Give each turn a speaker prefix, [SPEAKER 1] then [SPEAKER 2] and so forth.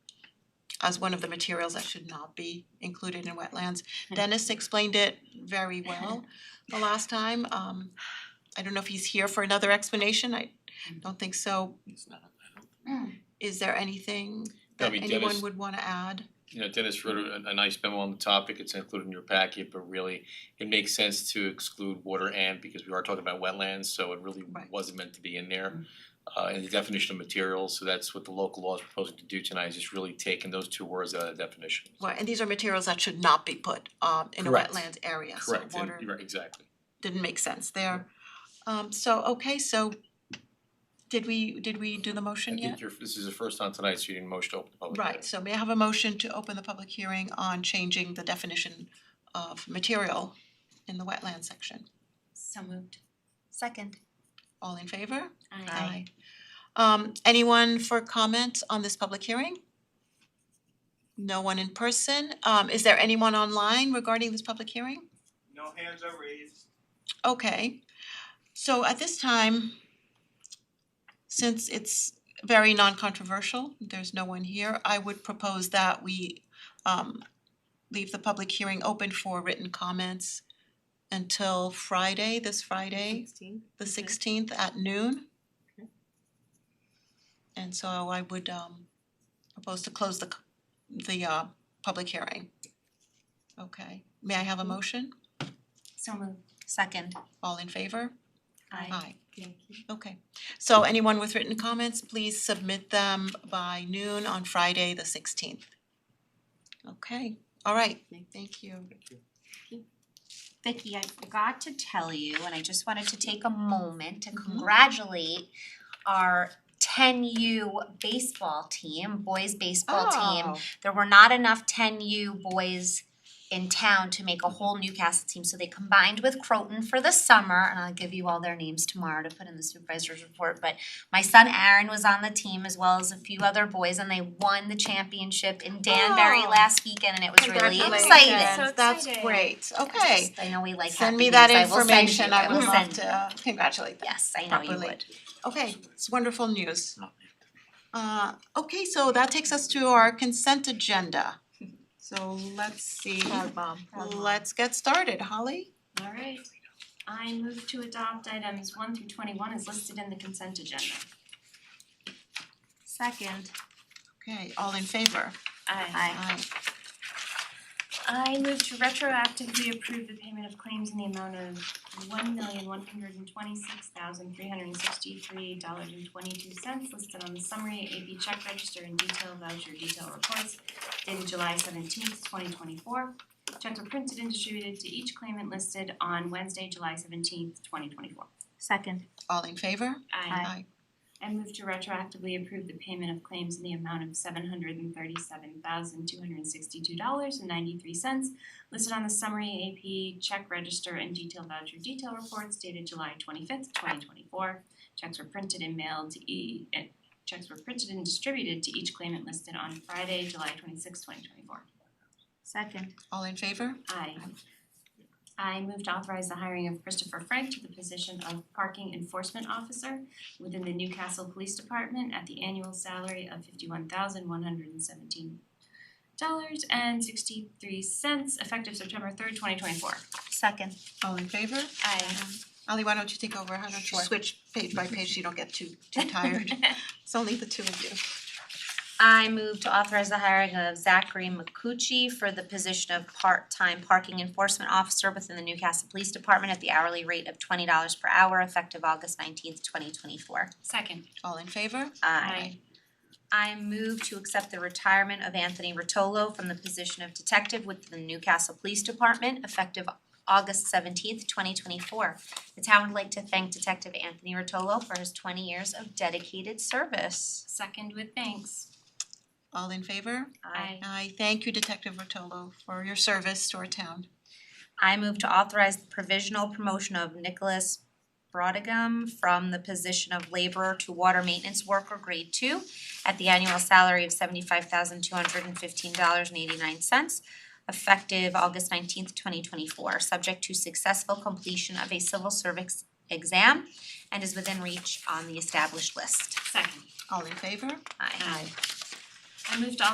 [SPEAKER 1] as one of the materials that should not be included in wetlands. Dennis explained it very well the last time. Um I don't know if he's here for another explanation. I don't think so.
[SPEAKER 2] It's not, I don't,
[SPEAKER 3] Mm.
[SPEAKER 1] Is there anything
[SPEAKER 2] I
[SPEAKER 1] that
[SPEAKER 2] mean,
[SPEAKER 1] anyone
[SPEAKER 2] Dennis-
[SPEAKER 1] would wanna add?
[SPEAKER 2] you know, Dennis wrote a, a nice memo on the topic, it's included in your packet, but really, it makes sense to exclude water and, because we are talking about wetlands, so it really
[SPEAKER 1] Right. Mm-hmm.
[SPEAKER 2] wasn't meant to be in there. Uh, and the definition of materials, so that's what the local law is proposing to do tonight, is just really taking those two words out of the definition.
[SPEAKER 1] Well, and these are materials that should not be put um in a
[SPEAKER 2] Correct.
[SPEAKER 1] wetland area, so
[SPEAKER 2] Correct, and,
[SPEAKER 1] water
[SPEAKER 2] right, exactly.
[SPEAKER 1] didn't make sense there. Um so, okay, so did we did we do the
[SPEAKER 2] I
[SPEAKER 1] motion yet?
[SPEAKER 2] think you're, this is the first time tonight, so you need a motion to open the public hearing.
[SPEAKER 1] Right, so may I have a motion to open the public hearing on changing the definition of material in the wetland section?
[SPEAKER 3] So moved. Second.
[SPEAKER 1] All in favor?
[SPEAKER 3] Aye.
[SPEAKER 1] Um anyone for comment on this public hearing? No one in person. Um is there anyone online regarding this public hearing?
[SPEAKER 4] No hands are raised.
[SPEAKER 1] Okay, so at this time, since it's very non-controversial, there's no one here, I would propose that we um leave the public hearing open for written comments until Friday, this Friday, the sixteenth at noon. And so I would um propose to close the c- the uh public hearing. Okay, may I have a motion?
[SPEAKER 3] So moved. Second.
[SPEAKER 1] All in favor?
[SPEAKER 3] Aye.
[SPEAKER 1] Aye. Okay, so anyone with written comments, please submit them by noon on Friday, the sixteenth. Okay, all right, thank you.
[SPEAKER 3] Vicky, I forgot to tell you, and I just wanted to take a moment to congratulate our ten U baseball team, boys baseball
[SPEAKER 1] Ah,
[SPEAKER 3] team. There were not enough ten U boys in town to make a whole Newcastle team, so they combined with Croton for the summer, and I'll give you all their names tomorrow to put in the supervisor's report, but my son Aaron was on the team as well as a few other boys, and they won the championship in Danbury
[SPEAKER 1] Oh.
[SPEAKER 3] last weekend, and it was really exciting.
[SPEAKER 1] Congratulations,
[SPEAKER 5] So
[SPEAKER 1] that's
[SPEAKER 5] exciting.
[SPEAKER 1] great,
[SPEAKER 3] I just-
[SPEAKER 1] okay.
[SPEAKER 3] I know we like
[SPEAKER 1] Send
[SPEAKER 3] happy
[SPEAKER 1] me that
[SPEAKER 3] news. I will send you.
[SPEAKER 1] information, I would
[SPEAKER 3] will
[SPEAKER 1] love
[SPEAKER 3] send you.
[SPEAKER 1] to congratulate them.
[SPEAKER 3] Yes, I know you
[SPEAKER 1] properly.
[SPEAKER 3] would.
[SPEAKER 1] Okay, it's wonderful news. Uh, okay, so that takes us to our consent agenda. So let's see, let's get started, Holly?
[SPEAKER 5] Alright, I move to adopt items one through twenty-one as listed in the consent agenda.
[SPEAKER 3] Second.
[SPEAKER 1] Okay, all in favor?
[SPEAKER 5] Aye.
[SPEAKER 3] Aye.
[SPEAKER 5] I move to retroactively approve the payment of claims in the amount of one million one hundred and twenty-six thousand three hundred and sixty-three dollars and twenty-two cents listed on the summary AP check register and detail voucher detail reports dated July seventeenth, twenty twenty-four. Checks were printed and distributed to each claimant listed on Wednesday, July seventeenth, twenty twenty-four.
[SPEAKER 3] Second.
[SPEAKER 1] All in favor?
[SPEAKER 5] Aye. I move to retroactively approve the payment of claims in the amount of seven hundred and thirty-seven thousand two hundred and sixty-two dollars and ninety-three cents listed on the summary AP check register and detail voucher detail reports dated July twenty-fifth, twenty twenty-four. Checks were printed and mailed to e- eh, checks were printed and distributed to each claimant listed on Friday, July twenty-sixth, twenty twenty-four.
[SPEAKER 3] Second.
[SPEAKER 1] All in favor?
[SPEAKER 5] Aye. I move to authorize the hiring of Christopher Frank to the position of Parking Enforcement Officer within the Newcastle Police Department at the annual salary of fifty-one thousand one hundred and seventeen dollars and sixty-three cents effective September third, twenty twenty-four.
[SPEAKER 3] Second.
[SPEAKER 1] All in favor?
[SPEAKER 5] Aye.
[SPEAKER 1] Ali, why don't you take over? How don't you
[SPEAKER 3] Sure.
[SPEAKER 1] switch page by page so you don't get too too tired? It's only the two of you.
[SPEAKER 3] I move to authorize the hiring of Zachary McCucci for the position of part-time parking enforcement officer within the Newcastle Police Department at the hourly rate of twenty dollars per hour effective August nineteenth, twenty twenty-four.
[SPEAKER 5] Second.
[SPEAKER 1] All in favor?
[SPEAKER 3] I move to accept the retirement of Anthony Rotolo from the position of detective with the Newcastle Police Department effective August seventeenth, twenty twenty-four. The town would like to thank Detective Anthony Rotolo for his twenty years of dedicated service.
[SPEAKER 5] Second with thanks.
[SPEAKER 1] All in favor?
[SPEAKER 5] Aye.
[SPEAKER 1] I thank you Detective Rotolo for your service to our town.
[SPEAKER 3] I move to authorize the provisional promotion of Nicholas Brodigam from the position of laborer to water maintenance worker grade two at the annual salary of seventy-five thousand two hundred and fifteen dollars and eighty-nine cents effective August nineteenth, twenty twenty-four, subject to successful completion of a civil service exam and is within reach on the established list.
[SPEAKER 5] Second.
[SPEAKER 1] All in favor?
[SPEAKER 3] Aye.
[SPEAKER 5] I move to